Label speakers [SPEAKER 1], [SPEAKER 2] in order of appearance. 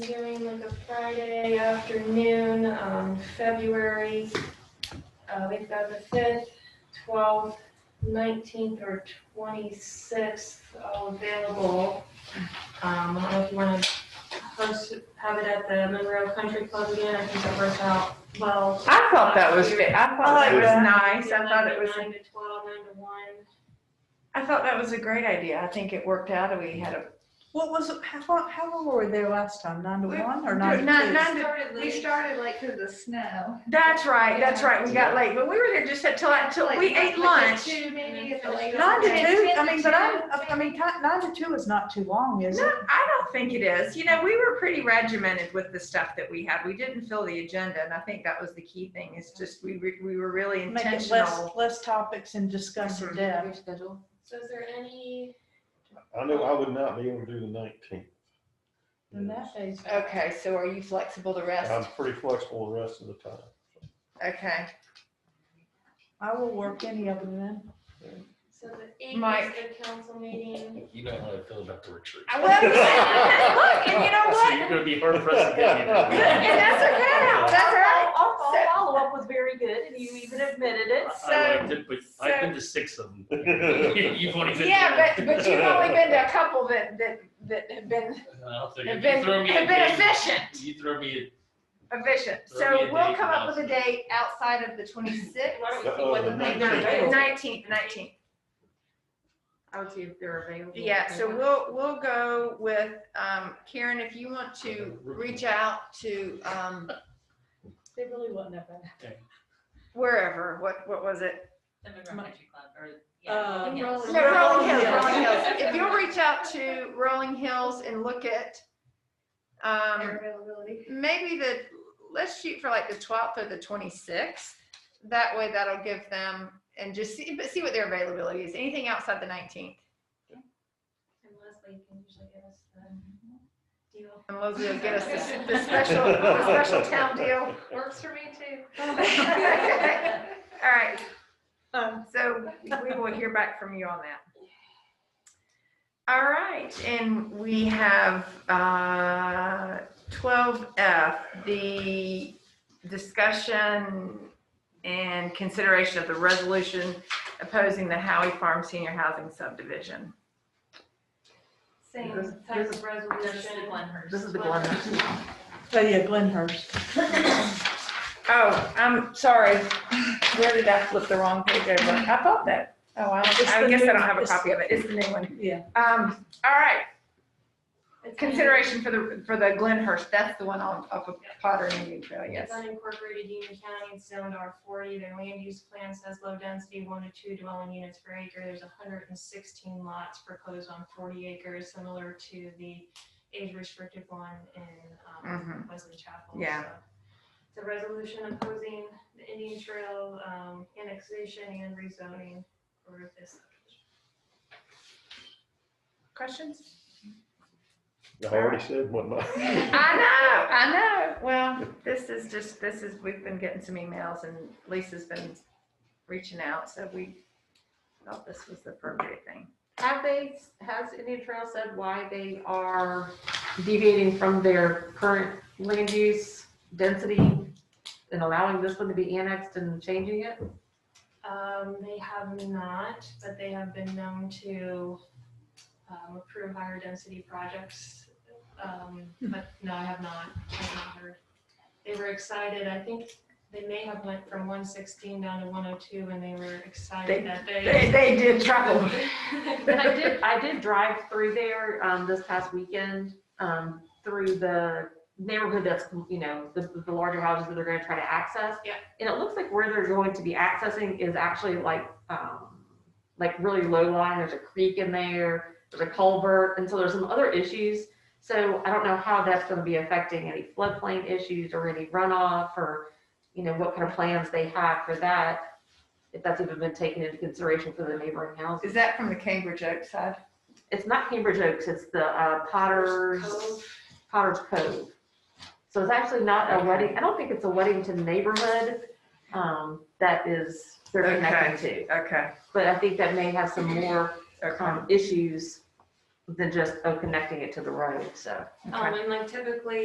[SPEAKER 1] doing like a Friday afternoon, um, February, uh, we've got the fifth, twelfth, nineteenth, or twenty-sixth all available. Um, I don't know if you wanna host, have it at the Monroe Country Club again, I think that works out well.
[SPEAKER 2] I thought that was, fa- I thought it was nice, I thought it was,
[SPEAKER 1] Nine to twelve, nine to one.
[SPEAKER 2] I thought that was a great idea, I think it worked out, we had a,
[SPEAKER 3] What was, it- how, long- how long were we there last time? Nine to
[SPEAKER 4] We-
[SPEAKER 3] one or nine
[SPEAKER 2] nine,
[SPEAKER 3] to two?
[SPEAKER 2] nine, to-
[SPEAKER 4] We started like because of snow.
[SPEAKER 2] that's right, that's right, we got late, but we were there just until, until,
[SPEAKER 4] Like-
[SPEAKER 2] we
[SPEAKER 4] like
[SPEAKER 2] ate
[SPEAKER 4] at
[SPEAKER 2] lunch.
[SPEAKER 4] Two, maybe at the latest.
[SPEAKER 3] Nine to
[SPEAKER 4] Okay.
[SPEAKER 3] two, I
[SPEAKER 4] Ten to
[SPEAKER 3] mean, but
[SPEAKER 4] two.
[SPEAKER 3] I, I mean, ti- nine to two is not too long, is
[SPEAKER 2] No,
[SPEAKER 3] it?
[SPEAKER 2] I don't think it is. You know, we were pretty regimented with the stuff that we had. We didn't fill the agenda, and I think that was the key thing. Is just we re- we were really
[SPEAKER 3] Make it less,
[SPEAKER 2] intentional.
[SPEAKER 3] less topics and discuss
[SPEAKER 2] Mhm.
[SPEAKER 3] it then.
[SPEAKER 1] So is there any?
[SPEAKER 5] I know I would not be able to do the nineteenth.
[SPEAKER 3] And that day's.
[SPEAKER 2] Okay, so are you flexible the
[SPEAKER 5] I'm
[SPEAKER 2] rest?
[SPEAKER 5] pretty flexible the rest of the time.
[SPEAKER 2] Okay,
[SPEAKER 3] I will work any of them then.
[SPEAKER 1] So the eighth
[SPEAKER 2] Mike.
[SPEAKER 1] is the council meeting.
[SPEAKER 6] You know how I feel about the retreat.
[SPEAKER 2] I love you. Look, and you know
[SPEAKER 6] So
[SPEAKER 2] what?
[SPEAKER 6] you're gonna be hard pressed to get
[SPEAKER 2] And that's okay. That's all right.
[SPEAKER 7] I'll, I'll
[SPEAKER 2] So-
[SPEAKER 7] follow up with very good, and you even admitted
[SPEAKER 6] I
[SPEAKER 7] it.
[SPEAKER 2] uh, So
[SPEAKER 6] liked it, but I've been to six of them. You've only been. to
[SPEAKER 2] yeah, but
[SPEAKER 6] one.
[SPEAKER 2] but you've only been to a couple that that that have been
[SPEAKER 6] I'll tell you,
[SPEAKER 2] have
[SPEAKER 6] you
[SPEAKER 2] been
[SPEAKER 6] throw me a
[SPEAKER 2] have been
[SPEAKER 6] date,
[SPEAKER 2] efficient.
[SPEAKER 6] You throw me
[SPEAKER 2] Efficient.
[SPEAKER 6] Throw me
[SPEAKER 2] So
[SPEAKER 6] a
[SPEAKER 2] we'll
[SPEAKER 6] date
[SPEAKER 2] come
[SPEAKER 6] and
[SPEAKER 2] up with a
[SPEAKER 6] I'll-
[SPEAKER 2] date outside of the twenty-sixth.
[SPEAKER 7] Why don't we see
[SPEAKER 5] Uh-oh,
[SPEAKER 7] what the
[SPEAKER 5] Oh, Uh, the
[SPEAKER 7] thing
[SPEAKER 5] nineteenth.
[SPEAKER 7] is?
[SPEAKER 2] Nineteenth, nineteenth.
[SPEAKER 7] I would see if they're available.
[SPEAKER 2] Yeah, so we'll, we'll go with, um, Karen, if you want to reach out to, um,
[SPEAKER 7] They really wouldn't have been.
[SPEAKER 2] wherever, what, what was it?
[SPEAKER 7] Uh,
[SPEAKER 2] No, Rolling Hills,
[SPEAKER 7] Hills.
[SPEAKER 2] Rolling Hills. If you'll reach out to Rolling Hills and look at, um,
[SPEAKER 1] availability.
[SPEAKER 2] maybe the, let's shoot for like the twelfth or the twenty-sixth. That way that'll give them, and just see, but see what their availability is. Anything outside the nineteenth.
[SPEAKER 1] And Leslie can usually give us the deal.
[SPEAKER 2] And Leslie will get us the- the special, the special town deal.
[SPEAKER 1] Works for me too.
[SPEAKER 2] All right,
[SPEAKER 3] Um,
[SPEAKER 2] So we will hear back from you on that. All right, and we have uh, twelve F, the discussion and consideration of the resolution opposing the Howie Farm Senior Housing subdivision.
[SPEAKER 1] Same
[SPEAKER 3] This-
[SPEAKER 1] type
[SPEAKER 3] this-
[SPEAKER 1] of resolution.
[SPEAKER 2] This is the
[SPEAKER 1] one.
[SPEAKER 3] So oh, yeah, Glenhurst.
[SPEAKER 2] Oh, I'm sorry. Where did I flip the wrong page over? I thought that. Oh, I
[SPEAKER 3] It's
[SPEAKER 2] I
[SPEAKER 3] the
[SPEAKER 2] guess I
[SPEAKER 3] new-
[SPEAKER 2] don't have a
[SPEAKER 3] it's-
[SPEAKER 2] copy of it. It's the new one.
[SPEAKER 3] Yeah.
[SPEAKER 2] Um, all right, Consideration for the, for the Glenhurst, that's the one on, off of Potter and Indian Trail, yes.
[SPEAKER 1] It's unincorporated Union County, it's zoned R forty, their land use plan says low density, one to two dwelling units per acre, there's hundred and sixteen lots proposed on forty acres, similar to the age restricted one in, um, Wesley Chapel.
[SPEAKER 2] Mm-hmm. Yeah.
[SPEAKER 1] so. It's a resolution opposing the Indian Trail, um, annexation and rezoning for this.
[SPEAKER 2] Questions?
[SPEAKER 5] I already said what my.
[SPEAKER 2] I know, I know. Well, this is just, this is, we've been getting some emails and Lisa's been reaching out, so we thought this was the appropriate thing.
[SPEAKER 7] Have they, has Indian Trail said why they are deviating from their current land use density and allowing this one to be annexed and changing it?
[SPEAKER 1] Um, they have not, but they have been known to, um, approve higher density projects. Um,
[SPEAKER 2] Hmm.
[SPEAKER 1] but no, I have not, I have not heard. They were excited, I think they may have went from one sixteen down to one oh two and they were
[SPEAKER 2] They-
[SPEAKER 1] excited that
[SPEAKER 2] They,
[SPEAKER 1] they.
[SPEAKER 2] they did trouble.
[SPEAKER 7] And I did, I did drive through there, um, this past weekend, um, through the neighborhood that's, you know, the, the larger houses that they're gonna try to access.
[SPEAKER 1] Yeah.
[SPEAKER 7] And it looks like where they're going to be accessing is actually like, um, like really low lying. there's a creek in there, there's a culvert, and so there's some other issues. So I don't know how that's gonna be affecting any floodplain issues or any runoff or, you know, what kind of plans they have for that. If that's even been taken into consideration for the neighboring houses.
[SPEAKER 2] Is that from the Cambridge Oaks side?
[SPEAKER 7] It's not Cambridge Oaks, it's the uh, Potter's,
[SPEAKER 1] Cove.
[SPEAKER 7] Potter's Cove. So it's actually not a wedding, I don't think it's a Weddington neighborhood um, that is, they're connecting to.
[SPEAKER 2] Okay,
[SPEAKER 7] But I think that may have some more
[SPEAKER 2] okay.
[SPEAKER 7] um, issues than just, oh, connecting it to the road, so.
[SPEAKER 1] Um, and like typically,